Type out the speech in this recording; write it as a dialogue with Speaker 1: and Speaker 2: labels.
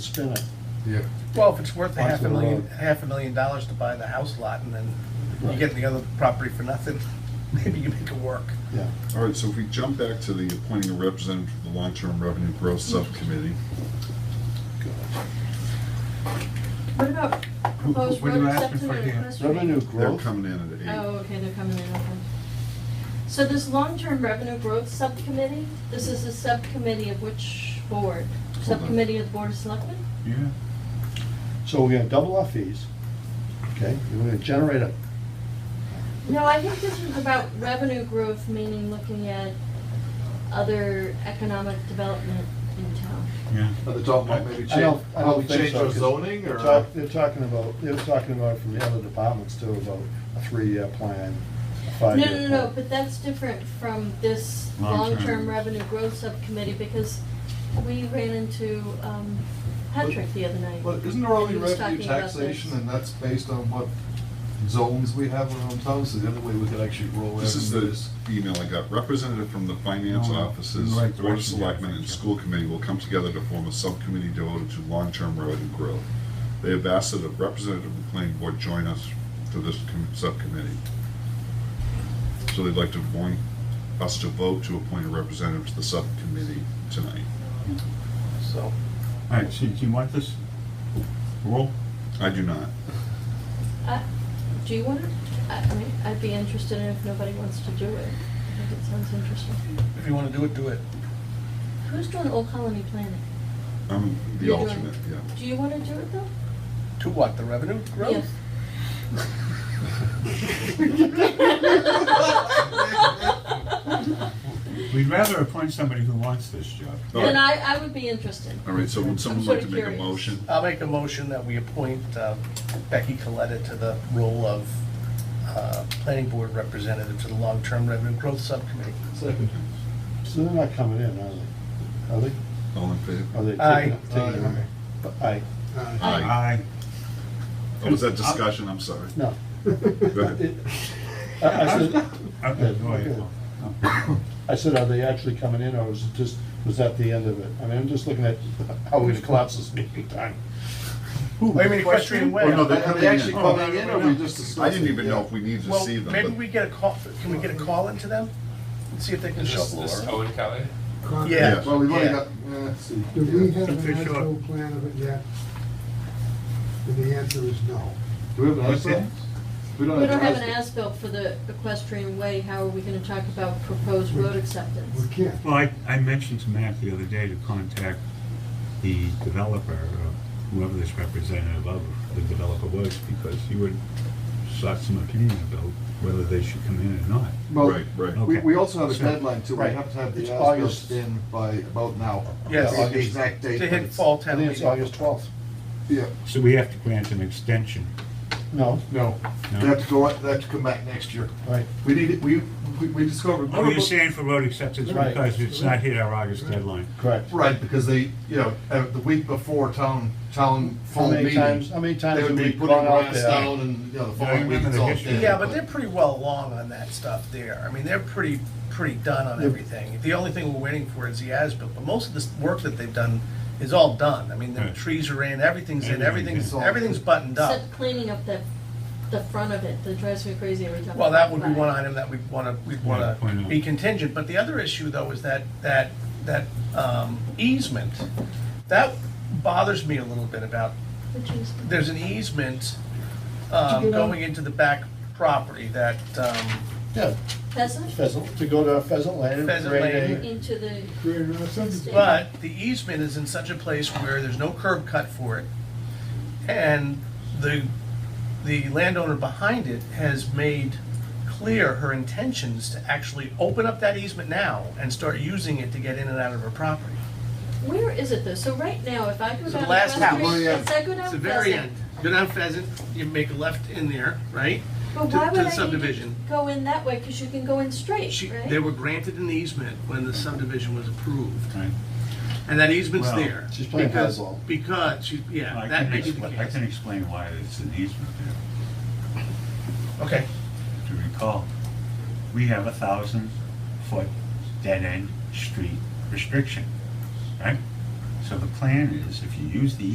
Speaker 1: spin it.
Speaker 2: Yeah,
Speaker 3: Well, if it's worth a
Speaker 2: Parts
Speaker 3: half a
Speaker 2: of the
Speaker 3: million,
Speaker 2: road.
Speaker 3: half a million dollars to buy the house lot and then you
Speaker 1: Right.
Speaker 3: get the other property for nothing, maybe you make it work.
Speaker 1: Yeah,
Speaker 4: All right, so if we jump back to the appointing a representative to the long-term revenue growth subcommittee.
Speaker 5: What about proposed
Speaker 2: what are you
Speaker 5: road
Speaker 2: asking
Speaker 5: acceptance
Speaker 2: for
Speaker 5: and
Speaker 2: here?
Speaker 5: equestrian?
Speaker 1: revenue
Speaker 4: They're
Speaker 1: growth,
Speaker 4: coming in at eight.
Speaker 5: Oh, okay, they're coming in, okay. So this long-term revenue growth subcommittee, this is a subcommittee of which board?
Speaker 4: on.
Speaker 5: Subcommittee of the Board of Selectmen?
Speaker 2: yeah.
Speaker 1: so we're gonna double our fees, okay? We're gonna generate a,
Speaker 5: No, I think this was about revenue growth, meaning looking at other economic development in town.
Speaker 6: Are they talking about maybe
Speaker 1: I
Speaker 6: change,
Speaker 1: don't- I
Speaker 6: how
Speaker 1: don't
Speaker 6: we
Speaker 1: think
Speaker 6: change
Speaker 1: so,
Speaker 6: our
Speaker 1: 'cause
Speaker 6: zoning
Speaker 1: they're
Speaker 6: or?
Speaker 1: talk- they're talking about, they were talking about from the other departments too, about a three-year plan, a
Speaker 5: No,
Speaker 1: five-year
Speaker 5: no,
Speaker 1: plan.
Speaker 5: no, but that's different from this
Speaker 4: Long-term.
Speaker 5: long-term revenue growth subcommittee because we ran into um, Patrick the other night.
Speaker 6: But isn't there only
Speaker 5: He was
Speaker 6: revenue
Speaker 5: talking about
Speaker 6: taxation
Speaker 5: this.
Speaker 6: and that's based on what zones we have around town? So the other way we could actually roll
Speaker 4: This is the
Speaker 6: revenues.
Speaker 4: email I got. Representative from the finance
Speaker 2: No, no,
Speaker 4: offices,
Speaker 2: in the right
Speaker 4: Board of
Speaker 2: direction, yeah, I
Speaker 4: Selectmen,
Speaker 2: think,
Speaker 4: and
Speaker 2: yeah.
Speaker 4: School Committee will come together to form a subcommittee devoted to long-term revenue growth. They have asked that a representative of the planning board join us to this com- subcommittee. So they'd like to appoint, us to vote to appoint a representative to the subcommittee tonight.
Speaker 3: So,
Speaker 2: All right, so do you want this? Roll?
Speaker 4: I do not.
Speaker 5: I- Uh, Do you want to, I mean, I'd be interested in if nobody wants to do it. I think it sounds interesting.
Speaker 3: if you wanna do it, do it.
Speaker 5: Who's doing Old Colony Planning?
Speaker 4: I'm the
Speaker 5: You're doing-
Speaker 4: alternate, yeah.
Speaker 5: Do you want to do it though?
Speaker 3: To what, the revenue growth?
Speaker 5: Yes.
Speaker 2: We'd rather appoint somebody who wants this job.
Speaker 4: All right.
Speaker 5: Then I, I would be interested.
Speaker 4: All right, so would someone
Speaker 5: I'm
Speaker 4: like
Speaker 5: sorta
Speaker 4: to make a
Speaker 5: curious.
Speaker 4: motion?
Speaker 3: I'll make a motion that we appoint uh, Becky Coletta to the role of uh, planning board representative to the long-term revenue growth subcommittee.
Speaker 6: Second.
Speaker 1: So they're not coming in, are they? Are
Speaker 4: All in favor?
Speaker 1: they? Are they
Speaker 3: Aye.
Speaker 1: taking, taking,
Speaker 6: Aye.
Speaker 1: but aye,
Speaker 5: Aye.
Speaker 2: Aye.
Speaker 4: Oh, was that discussion? I'm sorry.
Speaker 1: no.
Speaker 4: Go ahead.
Speaker 1: I I said,
Speaker 2: Okay, go ahead, Paul.
Speaker 1: I said, are they actually coming in, or was it just, was that the end of it? I mean, I'm just looking at how we're gonna collapse this meeting time.
Speaker 3: Wait a minute, question
Speaker 4: Oh, no,
Speaker 3: when?
Speaker 4: they're
Speaker 6: Are
Speaker 4: coming
Speaker 6: they
Speaker 4: in.
Speaker 6: actually coming in or we just discussing?
Speaker 4: I didn't even know if we needed to
Speaker 3: Well,
Speaker 4: see
Speaker 3: maybe
Speaker 4: them,
Speaker 3: we get a call, can we get a call into them? And see if they can
Speaker 7: Is
Speaker 3: show
Speaker 7: this, this
Speaker 3: up.
Speaker 7: Owen Kelly?
Speaker 3: Yeah.
Speaker 6: Well, we've only
Speaker 3: Yeah.
Speaker 6: got, eh, let's see.
Speaker 8: Do we
Speaker 6: Yeah.
Speaker 8: have an
Speaker 2: Official.
Speaker 8: actual plan of it yet? And the answer is no.
Speaker 6: Do we have an
Speaker 2: What's that?
Speaker 6: ASBIL? We
Speaker 5: We don't have an
Speaker 6: ASBIL.
Speaker 5: as-built for the equestrian way. How are we going to talk about proposed road acceptance?
Speaker 8: We can't.
Speaker 2: Well, I, I mentioned to Matt the other day to contact the developer, or whoever this representative of the developer was, because he would sought some opinion about whether they should come in or not.
Speaker 6: Well,
Speaker 4: right, right.
Speaker 6: we,
Speaker 2: Okay.
Speaker 6: we also have a
Speaker 2: So-
Speaker 6: deadline too. We
Speaker 1: Right.
Speaker 6: have to have the
Speaker 1: It's
Speaker 6: ASBIL
Speaker 1: August.
Speaker 6: in by about now.
Speaker 3: Yes.
Speaker 6: The exact
Speaker 3: To
Speaker 6: date. but
Speaker 3: hit
Speaker 6: it's-
Speaker 3: fall
Speaker 1: I
Speaker 3: town
Speaker 1: think it's
Speaker 3: meeting.
Speaker 1: August twelfth.
Speaker 6: Yeah,
Speaker 2: So we have to grant an extension.
Speaker 1: No,
Speaker 6: no.
Speaker 2: No.
Speaker 6: They have to go, they have to come back next year.
Speaker 1: right,
Speaker 6: We need, it- we, we- we discovered.
Speaker 2: Oh, you're saying for road acceptance
Speaker 1: Right.
Speaker 2: because it's not hit our August deadline.
Speaker 1: correct.
Speaker 6: Right, because they, you know, uh, the week before town, town
Speaker 1: How
Speaker 6: full
Speaker 1: many
Speaker 6: meeting.
Speaker 1: times, how many times
Speaker 6: They
Speaker 1: have
Speaker 6: would
Speaker 1: we
Speaker 6: be
Speaker 1: gone
Speaker 6: putting
Speaker 1: out
Speaker 6: grass
Speaker 1: there?
Speaker 6: down and, you know, the
Speaker 2: Yeah, I
Speaker 6: following week
Speaker 2: remember
Speaker 6: it's
Speaker 2: the
Speaker 6: all
Speaker 2: history.
Speaker 6: dead,
Speaker 3: Yeah, but they're pretty well along on that stuff there. I mean, they're pretty, pretty done on everything. The only thing we're waiting for is the as-built, but most of this work that they've done is all done. I mean, the
Speaker 2: Right.
Speaker 3: trees are in, everything's in,
Speaker 2: Everything,
Speaker 3: everything's,
Speaker 6: yeah.
Speaker 3: everything's buttoned up.
Speaker 5: Except cleaning up the, the front of it, that drives me crazy every time. I
Speaker 3: Well, that
Speaker 5: drive
Speaker 3: would be
Speaker 5: by.
Speaker 3: one item that we'd wanna, we'd
Speaker 2: Yeah,
Speaker 3: wanna
Speaker 2: why not?
Speaker 3: be contingent, but the other issue though is that, that, that um, easement. That bothers me a little bit about,
Speaker 5: Which is-
Speaker 3: there's an easement um, going into the back property that, um,
Speaker 1: Yeah,
Speaker 5: Pheasant?
Speaker 1: pheasant, to go to pheasant land. and
Speaker 3: Pheasant
Speaker 1: create
Speaker 3: land.
Speaker 1: a-
Speaker 5: Into the,
Speaker 8: Create another subdivision.
Speaker 3: But the easement is in such a place where there's no curb cut for it. And the, the landowner behind it has made clear her intentions to actually open up that easement now and start using it to get in and out of her property.
Speaker 5: where is it though? So right now, if I go
Speaker 3: It's the
Speaker 5: down
Speaker 3: last
Speaker 5: West
Speaker 3: house. Oh,
Speaker 5: Street, if I go
Speaker 3: It's
Speaker 5: down
Speaker 3: the very end.
Speaker 5: Pheasant.
Speaker 3: Go down Pheasant, you make a left in there, right?
Speaker 5: But
Speaker 3: to-
Speaker 5: why
Speaker 3: to
Speaker 5: would
Speaker 3: the
Speaker 5: I need to
Speaker 3: subdivision.
Speaker 5: go in that way? Because you can go in straight,
Speaker 3: She,
Speaker 5: right?
Speaker 3: they were granted an easement when the subdivision was approved.
Speaker 2: Right.
Speaker 3: And that easement's
Speaker 2: Well,
Speaker 3: there.
Speaker 1: she's playing
Speaker 3: because-
Speaker 1: hardball.
Speaker 3: Because, she- yeah,
Speaker 2: I
Speaker 3: that
Speaker 2: can
Speaker 3: may be the
Speaker 2: expl- I
Speaker 3: case.
Speaker 2: can explain why it's an easement there.
Speaker 3: Okay.
Speaker 2: to recall, we have a thousand foot dead end street restriction, right? So the plan is if you use the